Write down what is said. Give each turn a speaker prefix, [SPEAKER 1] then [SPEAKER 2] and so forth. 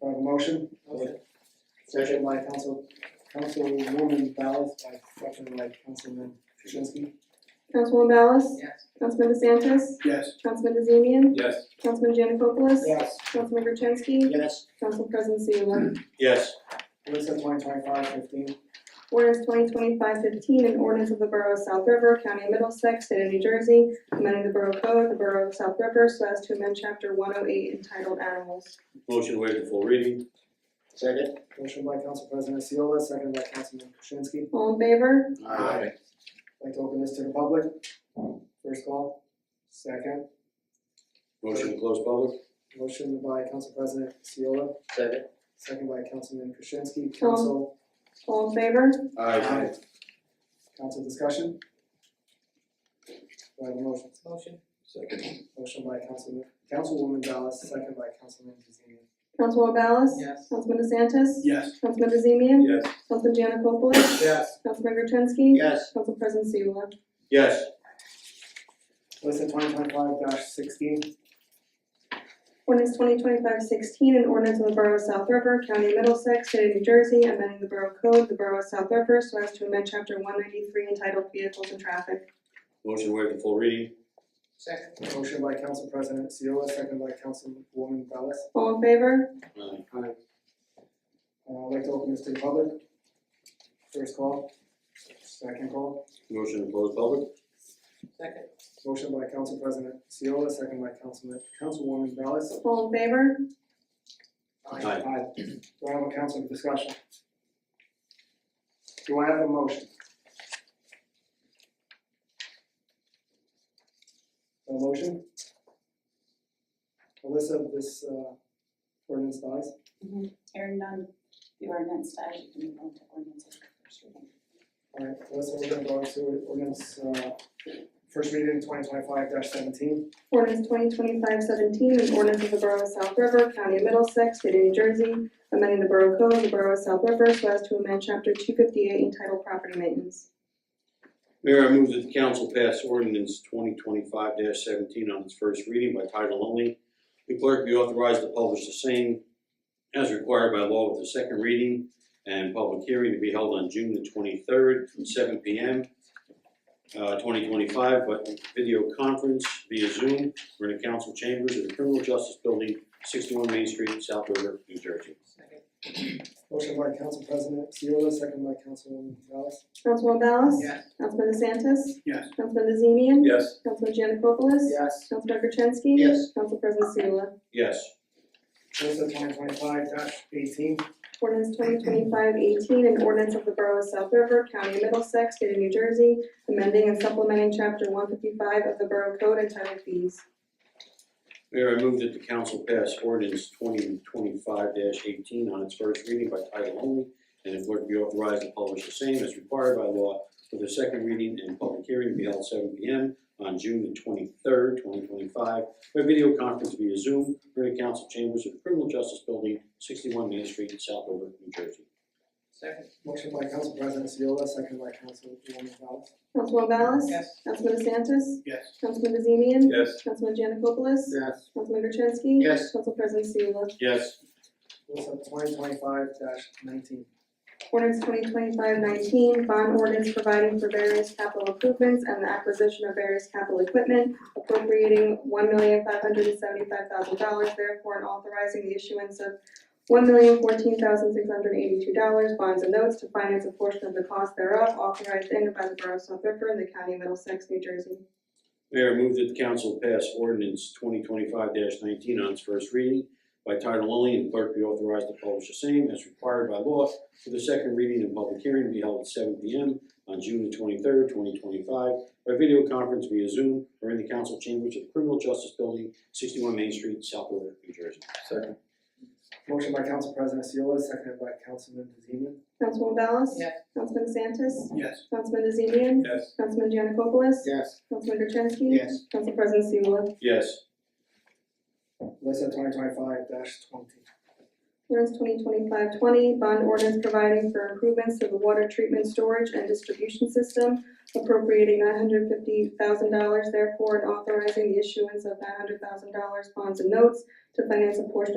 [SPEAKER 1] Do I have a motion?
[SPEAKER 2] Motion.
[SPEAKER 1] Second by council, councilwoman Ballas, by second by councilman Krasinski.
[SPEAKER 3] Councilwoman Ballas?
[SPEAKER 2] Yes.
[SPEAKER 3] Councilman DeSantis?
[SPEAKER 1] Yes.
[SPEAKER 3] Councilman DeZemian?
[SPEAKER 4] Yes.
[SPEAKER 3] Councilman Janikopoulos?
[SPEAKER 1] Yes.
[SPEAKER 3] Councilman Gertenski?
[SPEAKER 1] Yes.
[SPEAKER 3] Council President Seula?
[SPEAKER 4] Yes.
[SPEAKER 1] Ordinance of twenty twenty-five fifteen,
[SPEAKER 3] Ordinance 2025-15, an ordinance of the Borough of South River, County of Middlesex, State of New Jersey, amending the Borough Code of the Borough of South River so as to amend chapter one oh eight entitled Animals.
[SPEAKER 4] Motion to waive the full reading?
[SPEAKER 5] Second?
[SPEAKER 1] motion by council president Seola, second by councilman Krasinski.
[SPEAKER 3] All in favor?
[SPEAKER 5] Aye.
[SPEAKER 1] Like to open this to the public, first call, second,
[SPEAKER 4] Motion to close public?
[SPEAKER 1] motion by council president Seola,
[SPEAKER 5] Second?
[SPEAKER 1] second by councilman Krasinski, council,
[SPEAKER 3] All in favor?
[SPEAKER 1] Aye. council discussion. Do I have a motion?
[SPEAKER 2] Motion.
[SPEAKER 4] Second.
[SPEAKER 1] Motion by councilman, councilwoman Ballas, second by councilman DeZemian.
[SPEAKER 3] Councilwoman Ballas?
[SPEAKER 2] Yes.
[SPEAKER 3] Councilman DeSantis?
[SPEAKER 4] Yes.
[SPEAKER 3] Councilman DeZemian?
[SPEAKER 4] Yes.
[SPEAKER 3] Councilman Janikopoulos?
[SPEAKER 1] Yes.
[SPEAKER 3] Councilman Gertenski?
[SPEAKER 5] Yes.
[SPEAKER 3] Council President Seula?
[SPEAKER 4] Yes.
[SPEAKER 1] Listen, twenty twenty-five sixteen,
[SPEAKER 3] Ordinance 2025-16, an ordinance of the Borough of South River, County of Middlesex, State of New Jersey, amending the Borough Code, of the Borough of South River, so as to amend Chapter one ninety-three entitled Vehicles and Traffic.
[SPEAKER 4] Motion to waive the full reading?
[SPEAKER 2] Second.
[SPEAKER 1] motion by council president Seola, second by councilwoman Ballas.
[SPEAKER 3] All in favor?
[SPEAKER 4] Aye.
[SPEAKER 1] Uh, I'd like to open this to the public. First call, second call,
[SPEAKER 4] Motion to close public?
[SPEAKER 2] Second.
[SPEAKER 1] motion by council president Seola, second by councilman, councilwoman Ballas.
[SPEAKER 3] All in favor?
[SPEAKER 4] Aye.
[SPEAKER 1] Aye. Do I have a council discussion? Do I have a motion? A motion? Alyssa, this uh ordinance dies.
[SPEAKER 6] Hearing none, the ordinance dies, you can move on to ordinance as the first reading.
[SPEAKER 1] Alright, Alyssa, we're gonna go to ordinance uh first reading twenty twenty five seventeen.
[SPEAKER 3] Ordinance 2025-17, an ordinance of the Borough of South River, County of Middlesex, State of New Jersey, amending the Borough Code, of the Borough of South River, so as to amend Chapter two fifty-eight entitled Property Maintenance.
[SPEAKER 4] Mayor, I move that the council pass ordinance twenty twenty-five seventeen on its first reading by title only. The clerk be authorized to publish the same as required by law with a second reading and public hearing to be held on June the twenty-third from seven P M. Uh, twenty twenty-five, but video conference via Zoom, we're in the council chambers of the Criminal Justice Building, sixty-one Main Street, South River, New Jersey.
[SPEAKER 2] Second.
[SPEAKER 1] Motion by council president Seola, second by councilwoman Ballas.
[SPEAKER 3] Councilwoman Ballas?
[SPEAKER 2] Yes.
[SPEAKER 3] Councilman DeSantis?
[SPEAKER 4] Yes.
[SPEAKER 3] Councilman DeZemian?
[SPEAKER 4] Yes.
[SPEAKER 3] Councilman Janikopoulos?
[SPEAKER 1] Yes.
[SPEAKER 3] Councilman Gertenski?
[SPEAKER 5] Yes.
[SPEAKER 3] Council President Seula?
[SPEAKER 4] Yes.
[SPEAKER 1] Alyssa, twenty twenty five eighteen.
[SPEAKER 3] Ordinance 2025-18, an ordinance of the Borough of South River, County of Middlesex, State of New Jersey, amending and supplementing Chapter one fifty-five of the Borough Code entitled Fees.
[SPEAKER 4] Mayor, I move that the council pass ordinance twenty twenty-five eighteen on its first reading by title only, and the clerk be authorized to publish the same as required by law with a second reading and public hearing to be held seven P M on June the twenty-third, twenty twenty-five, by video conference via Zoom, during the council chambers of the Criminal Justice Building, sixty-one Main Street, South River, New Jersey.
[SPEAKER 2] Second.
[SPEAKER 1] Motion by council president Seola, second by councilwoman Ballas.
[SPEAKER 3] Councilwoman Ballas?
[SPEAKER 2] Yes.
[SPEAKER 3] Councilman DeSantis?
[SPEAKER 1] Yes.
[SPEAKER 3] Councilman DeZemian?
[SPEAKER 4] Yes.
[SPEAKER 3] Councilman Janikopoulos?
[SPEAKER 1] Yes.
[SPEAKER 3] Councilman Gertenski?
[SPEAKER 5] Yes.
[SPEAKER 3] Council President Seula?
[SPEAKER 4] Yes.
[SPEAKER 1] Alyssa, twenty twenty five nineteen.
[SPEAKER 3] Ordinance 2025-19, bond ordinance providing for various capital improvements and the acquisition of various capital equipment, appropriating one million five hundred and seventy-five thousand dollars therefore and authorizing the issuance of one million fourteen thousand six hundred eighty-two dollars bonds and notes to finance a portion of the cost thereof authorized in and by the Borough of South River and the County of Middlesex, New Jersey.
[SPEAKER 4] Mayor, I move that the council pass ordinance twenty twenty-five nineteen on its first reading by title only and clerk be authorized to publish the same as required by law for the second reading and public hearing to be held at seven P M on June the twenty-third, twenty twenty-five by video conference via Zoom or in the council chambers of Criminal Justice Building, sixty-one Main Street, South River, New Jersey.
[SPEAKER 5] Second?
[SPEAKER 1] Motion by council president Seola, second by councilman DeZemian.
[SPEAKER 3] Councilwoman Ballas?
[SPEAKER 2] Yes.
[SPEAKER 3] Councilman DeSantis?
[SPEAKER 5] Yes.
[SPEAKER 3] Councilman DeZemian?
[SPEAKER 4] Yes.
[SPEAKER 3] Councilman Janikopoulos?
[SPEAKER 5] Yes.
[SPEAKER 3] Councilman Gertenski?
[SPEAKER 5] Yes.
[SPEAKER 3] Council President Seula?
[SPEAKER 4] Yes.
[SPEAKER 1] Alyssa, twenty twenty five twenty.
[SPEAKER 3] Ordinance 2025-20, bond ordinance providing for improvements to the water treatment storage and distribution system, appropriating nine hundred fifty thousand dollars therefore and authorizing the issuance of nine hundred thousand dollars bonds and notes to finance a portion of